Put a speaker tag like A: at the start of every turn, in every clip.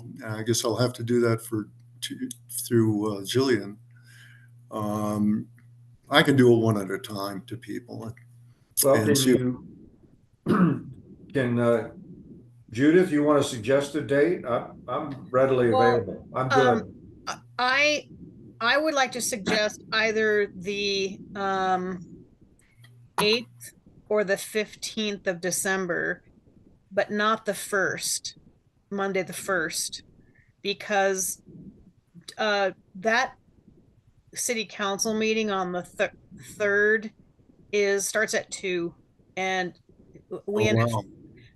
A: and I guess I'll have to do that for, to- through uh, Jillian. Um, I can do it one at a time to people.
B: Well,
A: And
B: can
A: she-
B: you, can, uh, Judith, you want to suggest a date? I'm, I'm readily
C: Well,
B: available. I'm good.
C: I, I would like to suggest either the um eighth or the fifteenth of December, but not the first, Monday the first, because uh that city council meeting on the thir- third is, starts at two and we
A: Oh,
C: end up
A: wow.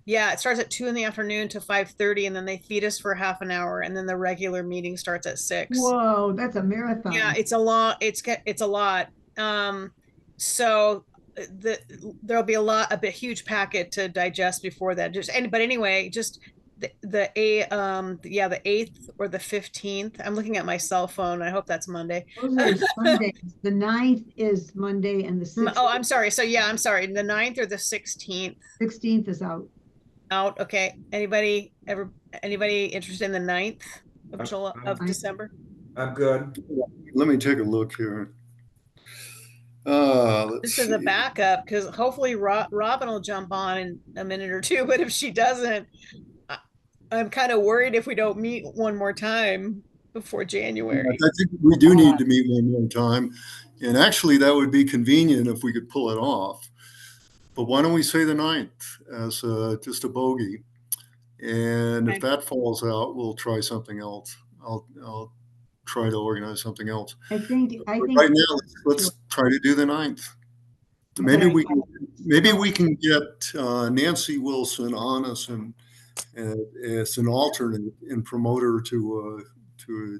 C: yeah, it starts at two in the afternoon to five thirty, and then they feed us for half an hour, and then the regular meeting starts at six.
D: Whoa, that's a marathon.
C: Yeah, it's a long. It's get. It's a lot. Um, so uh, the there'll be a lot, a bit huge packet to digest before that. Just and but anyway, just the the a um yeah the eighth or the fifteenth. I'm looking at my cell phone. I hope that's Monday.
D: Those are Sundays. The ninth is Monday and
C: M-
D: the sixteenth.
C: Oh, I'm sorry. So yeah, I'm sorry. The 9th or the sixteenth.
D: Sixteenth is out.
C: out. Okay, anybody ever, anybody interested in the ninth
B: Uh,
C: of July,
B: I'm-
C: of
D: I-
C: December?
B: I'm good.
A: Let me take a look here. Uh, let's
C: This is a
A: see.
C: backup, because hopefully Ro- Robin will jump on in a minute or two, but if she doesn't, I- I'm kind of worried if we don't meet one more time before
A: I
C: January.
A: think we do need to meet one more time, and actually, that would be convenient if we could pull it off. But why don't we say the ninth as uh, just a bogey? And
C: Okay.
A: if that falls out, we'll try something else. I'll, I'll try to organize something else.
D: I think, I
A: But
D: think.
A: Right now, let's- let's try to do the ninth. Maybe we, can maybe we can get uh, Nancy Wilson on us and, uh, as an alternate and promote her to, uh, to,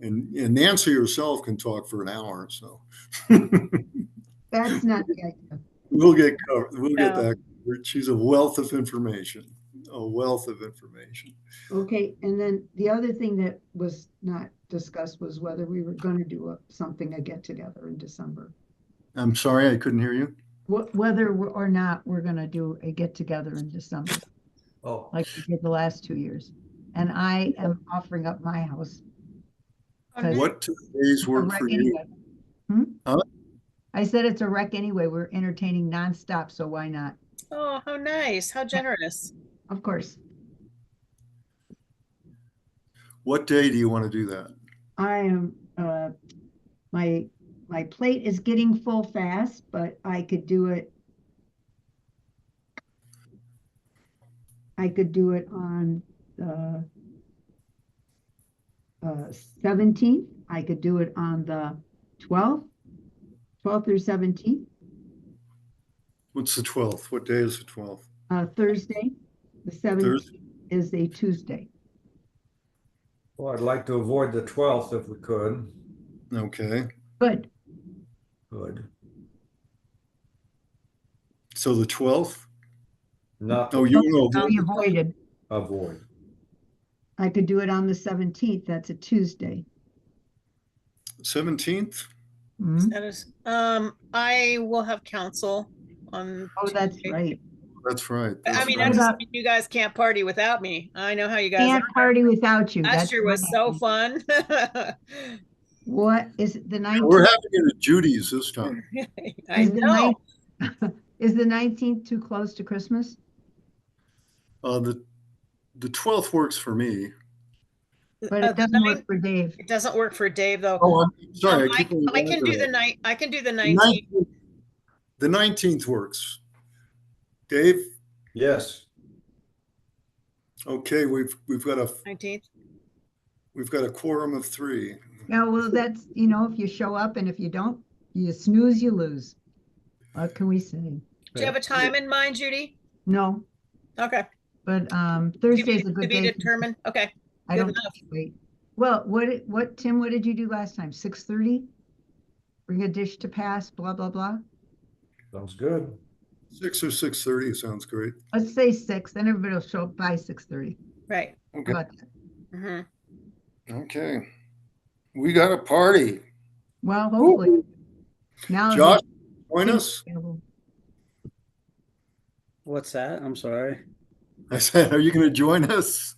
A: and and Nancy herself can talk for an hour, so
D: That's not the idea.
A: we'll get, covered. we'll get
C: Yeah.
A: that. covered. She's a wealth of information, a wealth of information.
D: Okay, and then the other thing that was not discussed was whether we were gonna do a, something, a get together in December.
A: I'm sorry, I couldn't hear you.
D: Wh- Whether we're- or not, we're gonna do a get together in December,
B: Oh,
D: like we did the last two years. And I am offering up my house.
C: Okay.
A: What days
D: a
A: work
D: wreck
A: for you?
D: anyway. Hmm?
A: Huh?
D: I said it's a wreck anyway. We're entertaining nonstop, so why not?
C: Oh, how nice, how generous.
D: Of course.
A: What day do you want to do that?
D: I am, uh, my, my plate is getting full fast, but I could do it. I could do it on, the uh, seventeenth. I could do it on the twelfth, twelfth or seventeenth,
A: What's the 12th? What day is the 12th?
D: uh, Thursday. The seventeenth
A: Thursday?
D: is a Tuesday.
B: well, oh, I'd like to avoid the 12th if we could.
A: Okay,
D: Good.
B: Good.
A: so the 12th?
B: Not
A: No, you
C: um,
A: know,
D: We avoided.
B: avoid.
D: I could do it on the seventeenth. That's a Tuesday.
A: 17th?
D: Mhm.
C: That is, um, I will have counsel on.
D: Oh, that's
C: Tuesday.
D: right.
A: That's right.
C: I
A: that's
C: mean,
A: right.
C: I
D: What
C: just,
D: about-
C: you guys can't party without me. I know how you guys.
D: Can't
C: are.
D: party without you.
C: Last
D: That's
C: year was
D: right.
C: so fun.
D: What is it the
A: We're
D: nineteenth?
A: having it at Judy's this time.
C: I
D: Is the
C: know.
D: Is the nineteenth too close to Christmas?
A: Uh, the, the 12th works for me.
D: But
C: Uh,
D: it doesn't work
C: nine-
D: for Dave.
C: It doesn't work for Dave though.
A: Oh, I'm sorry.
C: Um, I,
A: keep on
C: I can do the
A: wondering.
C: night, I can do the
A: The
C: nineteenth.
A: 19th The 19th works. Dave,
B: Yes,
A: okay, we've, we've got a,
C: Nineteenth.
A: we've got a quorum of three.
D: Yeah, well, that's, you know, if you show up and if you don't, you snooze, you lose. What can we say?
C: Do you have a time in mind, Judy?
D: No,
C: Okay.
D: but um
C: To
D: Thursday's
C: be-
D: a
C: To
D: good
C: be
D: day.
C: determined. Okay,
D: I
C: good
D: don't
C: enough.
D: wait. Well, what, did- what, Tim, what did you do last time? Six thirty? Bring a dish to pass, blah, blah, blah.
B: sounds good.
A: Six or 6:30 sounds great.
D: Let's say six, then everybody will show up by six thirty.
C: right.
A: Okay,
C: Mhm.
A: okay. We got a party.
D: Well, hopefully.
C: Oh,
D: Now. that
A: Josh, join
D: Tim's
A: us?
D: available.
E: What's that? I'm sorry.
A: I said, are you going to join us?